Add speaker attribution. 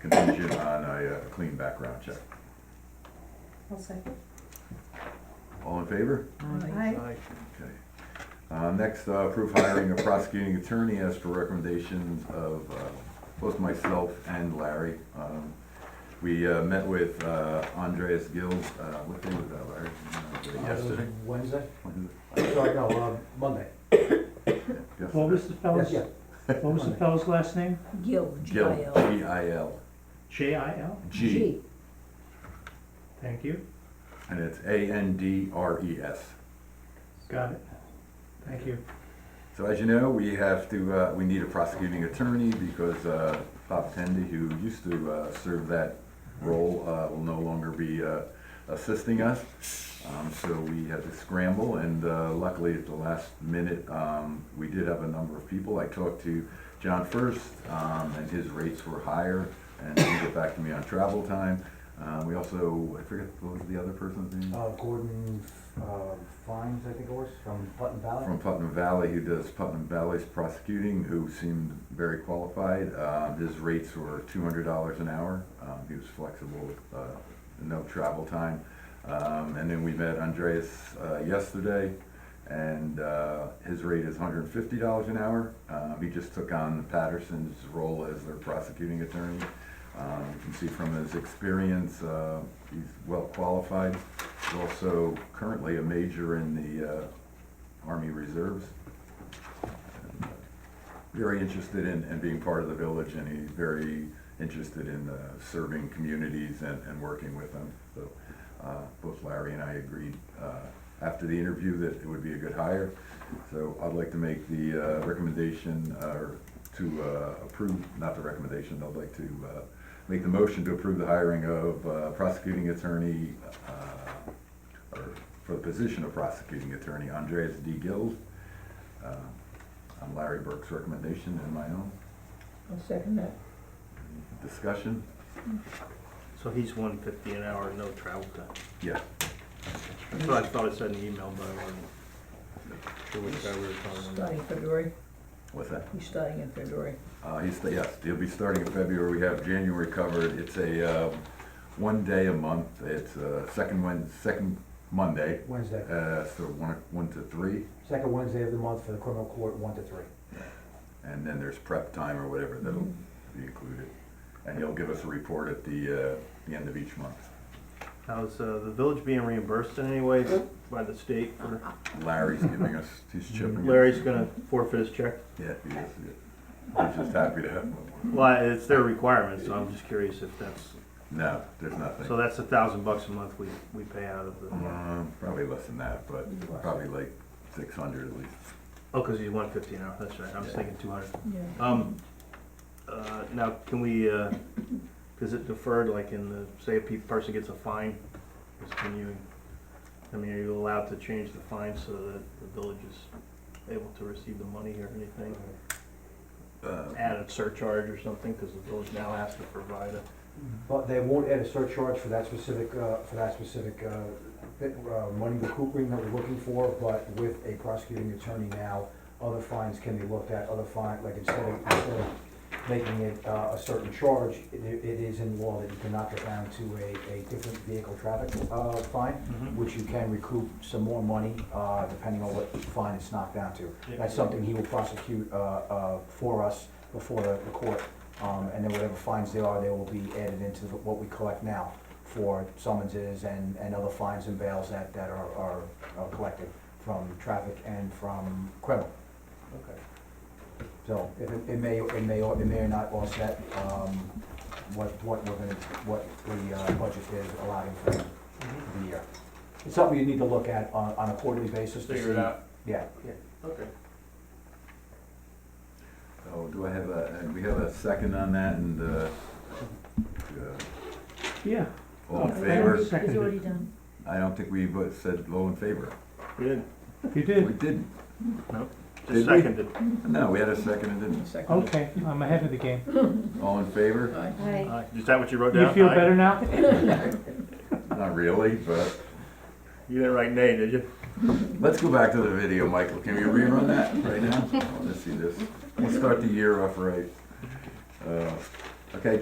Speaker 1: contingent on a uh, clean background check.
Speaker 2: I'll second.
Speaker 1: All in favor?
Speaker 2: Aye.
Speaker 1: Okay. Uh, next, uh, approve hiring a prosecuting attorney as per recommendations of, uh, both myself and Larry. Um, We, uh, met with, uh, Andreas Gill, uh, what day was that, Larry?
Speaker 3: Oh,
Speaker 1: Uh, Yesterday.
Speaker 3: Wednesday?
Speaker 1: When-
Speaker 3: Sorry, no, uh, Monday.
Speaker 4: What
Speaker 1: yesterday.
Speaker 4: was the
Speaker 3: Yes,
Speaker 4: fellow's,
Speaker 3: yeah.
Speaker 4: what was the fellow's last name?
Speaker 2: Gil,
Speaker 1: Gill,
Speaker 2: G-I-L.
Speaker 1: G I L,
Speaker 4: J I L?
Speaker 1: G,
Speaker 4: Thank you.
Speaker 1: and it's A N D R E S.
Speaker 4: Got it. Thank you.
Speaker 1: So as you know, we have to, uh, we need a prosecuting attorney because, uh, Bob Tendy, who used to, uh, serve that role, uh, will no longer be, uh, assisting us. Um, so we had to scramble and, uh, luckily at the last minute, um, we did have a number of people. I talked to John first, um, and his rates were higher and he got back to me on travel time. Uh, we also, I forget, what was the other person's name?
Speaker 3: Uh, Gordon, uh, Fines, I think it was, from Putnam Valley.
Speaker 1: from Putnam Valley, who does Putnam Valley's prosecuting, who seemed very qualified. Uh, His rates were two hundred dollars an hour. Um, He was flexible with uh, no travel time. Um, And then we met Andreas uh, yesterday, and uh, his rate is hundred and fifty dollars an hour. Um, He just took on Patterson's role as their prosecuting attorney. Um, You can see from his experience, uh, he's well-qualified. He's also currently a major in the uh, Army Reserves. Very interested in, in being part of the village, and he's very interested in uh, serving communities and, and working with them. So uh, both Larry and I agreed uh, after the interview that it would be a good hire. So I'd like to make the uh, recommendation, or to uh, approve, not the recommendation, I'd like to uh, make the motion to approve the hiring of uh, prosecuting attorney uh, or for the position of prosecuting attorney, Andreas D. Gills. uh, On Larry Burke's recommendation and my own
Speaker 2: I'll second that.
Speaker 1: discussion,
Speaker 5: So he's one fifty an hour, no travel time.
Speaker 1: yeah.
Speaker 5: That's what I thought it said in the email, but I wasn't sure which guy we were talking about.
Speaker 2: Starting February,
Speaker 1: What's that?
Speaker 2: he's starting in February.
Speaker 1: Uh, he's, yes, he'll be starting in February, we have January covered, it's a, um, one day a month, it's, uh, second Wed, second Monday,
Speaker 3: Wednesday,
Speaker 1: uh, so one, one to three,
Speaker 3: second Wednesday of the month for the criminal court, one to three.
Speaker 1: and then there's prep time or whatever that'll be included. And he'll give us a report at the, uh, the end of each month.
Speaker 5: Now, is uh, the village being reimbursed in any way by the state for,
Speaker 1: Larry's giving us, he's chipping. in.
Speaker 5: Larry's gonna forfeit his check?
Speaker 1: Yeah, he is, yeah. I'm just happy to have him.
Speaker 5: Well, it's their requirement, so I'm just curious if that's,
Speaker 1: No, there's nothing.
Speaker 5: so that's a thousand bucks a month we, we pay out of the,
Speaker 1: Um, Probably less than that, but probably like six hundred at least.
Speaker 5: oh, cause he's one fifty an hour, that's right, I was thinking two hundred.
Speaker 2: Yeah.
Speaker 5: Um, uh, now, can we, uh, is it deferred, like in the, say a pe- person gets a fine, is can you, I mean, are you allowed to change the fine so that the village is able to receive the money or anything?
Speaker 1: Uh,
Speaker 5: Add a surcharge or something, because the village now has to provide a,
Speaker 3: But they won't add a surcharge for that specific, uh, for that specific, uh, bit, uh, money recouping that we're looking for, but with a prosecuting attorney now, other fines can be looked at, other fine, like instead of, instead of making it, uh, a certain charge, it, it is in law that you can knock it down to a, a different vehicle traffic, uh, fine,
Speaker 5: Mhm.
Speaker 3: which you can recoup some more money, uh, depending on what fine it's knocked down to. That's something he will prosecute, uh, uh, for us before the, the court. Um, and then whatever fines there are, they will be added into the- what we collect now for summonses and, and other fines and bails that, that are, are, are collected from traffic and from criminal.
Speaker 5: okay.
Speaker 3: So it, it may, it may, or- it may or not offset, um, what, what we're gonna, what the, uh, budget is allowing for the
Speaker 5: Mm-hmm.
Speaker 3: year. It's something you need to look at on, on a quarterly basis to see.
Speaker 5: Figure it out,
Speaker 3: Yeah.
Speaker 5: okay.
Speaker 1: Oh, do I have a, and we have a second on that and, uh, uh,
Speaker 4: Yeah.
Speaker 1: all in
Speaker 4: Okay.
Speaker 1: favor?
Speaker 2: It's already done.
Speaker 1: I don't think we both said all in favor.
Speaker 5: Good,
Speaker 4: You
Speaker 1: We
Speaker 4: did.
Speaker 1: didn't.
Speaker 5: just
Speaker 1: Did we?
Speaker 5: seconded.
Speaker 1: No, we had a second and didn't.
Speaker 2: Second.
Speaker 4: Okay, I'm ahead of the game.
Speaker 1: All in favor?
Speaker 2: Aye.
Speaker 5: Aye. Is that what you wrote down?
Speaker 4: You feel
Speaker 5: Aye?
Speaker 4: better now?
Speaker 1: Not really, but
Speaker 5: You didn't write nay, did you?
Speaker 1: let's go back to the video, Michael. Can we rerun that right now? I wanna see this. We'll start the year off right. Uh, Okay,